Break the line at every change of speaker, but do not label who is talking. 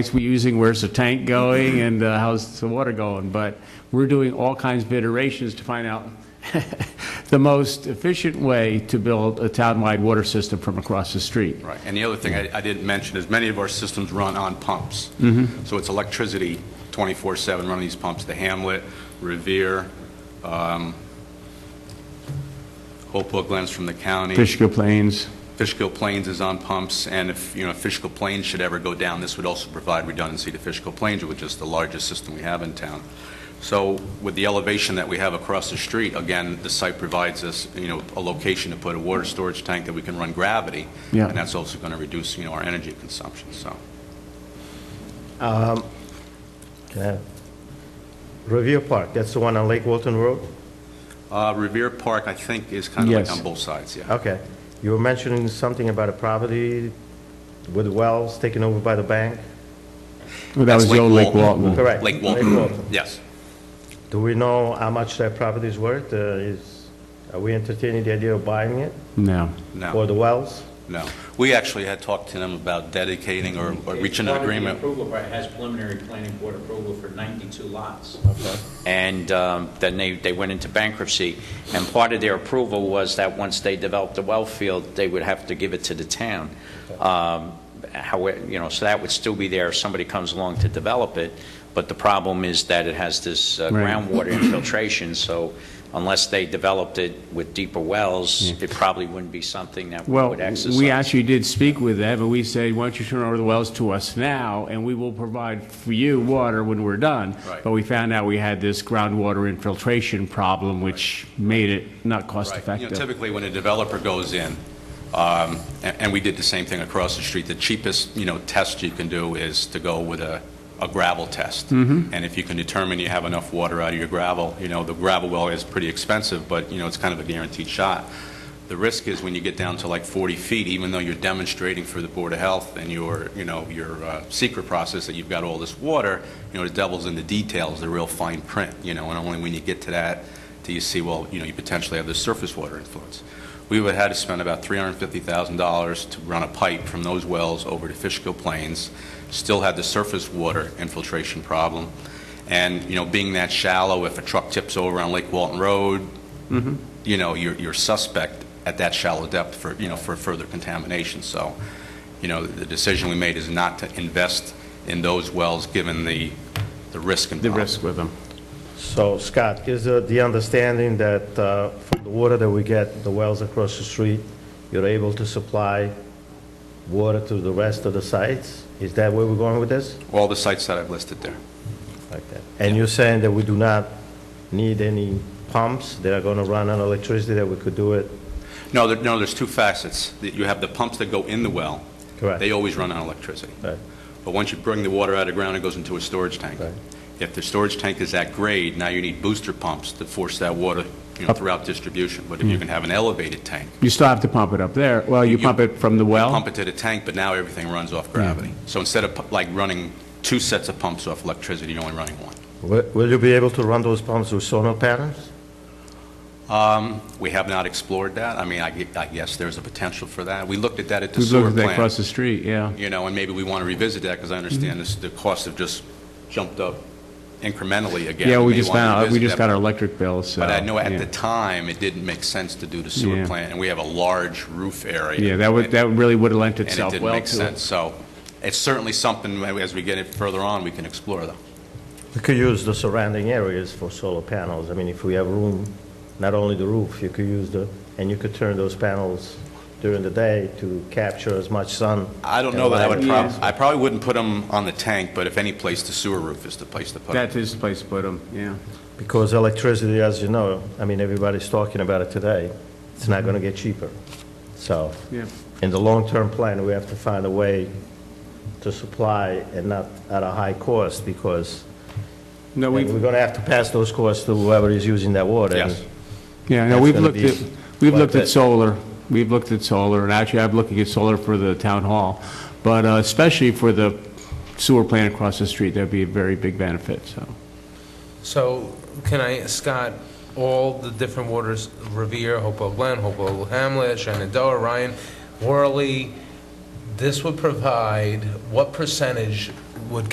tanks we using, where's the tank going, and uh, how's the water going? But we're doing all kinds of iterations to find out the most efficient way to build a townwide water system from across the street.
Right, and the other thing I I didn't mention is many of our systems run on pumps. So it's electricity 24/7 running these pumps, the Hamlet, Revere, um, Hopewell Glens from the county.
Fishkill Plains,
Fishkill Plains is on pumps, and if, you know, if Fishkill Plains should ever go down, this would also provide redundancy to Fishkill Plains, which is the largest system we have in town. So with the elevation that we have across the street, again, the site provides us, you know, a location to put a water storage tank that we can run gravity.
Yeah.
And that's also going to reduce, you know, our energy consumption, so.
Yeah. Revere Park, that's the one on Lake Walton Road?
Uh, Revere Park, I think, is kind of like
Yes.
on both sides, yeah.
Okay. You were mentioning something about a property with wells taken over by the bank?
Well, that
That's
was the old Lake Walton.
Correct.
Lake
Lake
Walton,
Walton.
yes.
Do we know how much that property is worth? Uh, Is, are we entertaining the idea of buying it?
No.
No.
Or the wells?
No. We actually had talked to them about dedicating or or reaching an
It's part of the
agreement.
Approval, but it has preliminary planning board approval for 92 lots.
and um, then they, they went into bankruptcy. And part of their approval was that once they developed the well field, they would have to give it to the town. Um, How, you know, so that would still be there if somebody comes along to develop it, but the problem is that it has this uh,
Right.
groundwater infiltration, so unless they developed it with deeper wells, it probably wouldn't be something that we
Well,
would exercise.
we actually did speak with them, and we said, why don't you turn over the wells to us now, and we will provide for you water when we're done.
Right.
But we found out we had this groundwater infiltration problem, which made it not
Right. You know,
cost-effective.
typically, when a developer goes in, um, a- and we did the same thing across the street, the cheapest, you know, test you can do is to go with a a gravel test. And if you can determine you have enough water out of your gravel, you know, the gravel well is pretty expensive, but, you know, it's kind of a guaranteed shot. The risk is when you get down to like 40 feet, even though you're demonstrating for the Board of Health and your, you know, your uh, secret process that you've got all this water, you know, the devil's in the details, the real fine print, you know, and only when you get to that do you see, well, you know, you potentially have this surface water influence. We would have had to spend about $350,000 to run a pipe from those wells over to Fishkill Plains, still had the surface water infiltration problem, and, you know, being that shallow, if a truck tips over on Lake Walton Road,
Mm-hmm.
you know, you're, you're suspect at that shallow depth for, you know, for further contamination. So, you know, the decision we made is not to invest in those wells, given the, the risk
The
involved.
risk with them.
So Scott, is uh, the understanding that uh, from the water that we get, the wells across the street, you're able to supply water to the rest of the sites? Is that where we're going with this?
All the sites that I've listed there.
Like that. And you're saying that we do not need any pumps that are going to run on electricity, that we could do it?
No, there, no, there's two facets. That You have the pumps that go in the well.
Correct.
They always run on electricity.
Right.
But once you bring the water out of the ground, it goes into a storage tank.
Right.
If the storage tank is at grade, now you need booster pumps to force that water, you know, throughout distribution. But if
Mm.
you can have an elevated tank,
You still have to pump it up there. Well, you
You-
pump it from the well? Mm-hmm.
pump it to the tank, but now everything runs off gravity. So instead of pu- like running two sets of pumps off electricity, you're only running one.
Will will you be able to run those pumps with solar panels?
We have not explored that. I mean, I gue- I guess there's a potential for that. We looked at that at the
We
sewer
looked at
plant.
that across the street, yeah.
you know, and maybe we want to revisit that, because I understand this, the costs have just jumped up incrementally again.
Yeah, we
may
just
wanna
found, out we
revisit
just
that.
got our electric bill, so.
But I know at
yeah.
the time, it didn't make sense to do the sewer
Yeah.
plant, and we have a large roof area.
Yeah, that would, that really would have lent
And it
itself
didn't
well
make
to
sense,
it.
so it's certainly something, as we get it further on, we can explore, though.
We could use the surrounding areas for solar panels. I mean, if we have room, not only the roof, you could use the, and you could turn those panels during the day to capture as much sun.
I don't know that I would prob, I probably wouldn't put them on the tank, but if any place, the sewer roof is the place to put them.
That is the place to put them, yeah.
Because electricity, as you know, I mean, everybody's talking about it today, it's not going to get cheaper. So,
Mm-hmm. Yeah.
in the long-term plan, we have to find a way to supply and not at a high cost, because
No,
we're
we've,
going to have to pass those costs to whoever is using that water.
Yes.
Yeah, no,
That's
we've
gonna
looked
be
at, we've
quite
looked
a
at
bit.
solar, we've looked at solar, and actually, I'm looking at solar for the town hall, but uh, especially for the sewer plant across the street, that'd be a very big benefit, so.
So can I, Scott, all the different waters, Revere, Hopewell Glen, Hopewell Hamlet, Shenandoah, Ryan, Worley, this would provide what percentage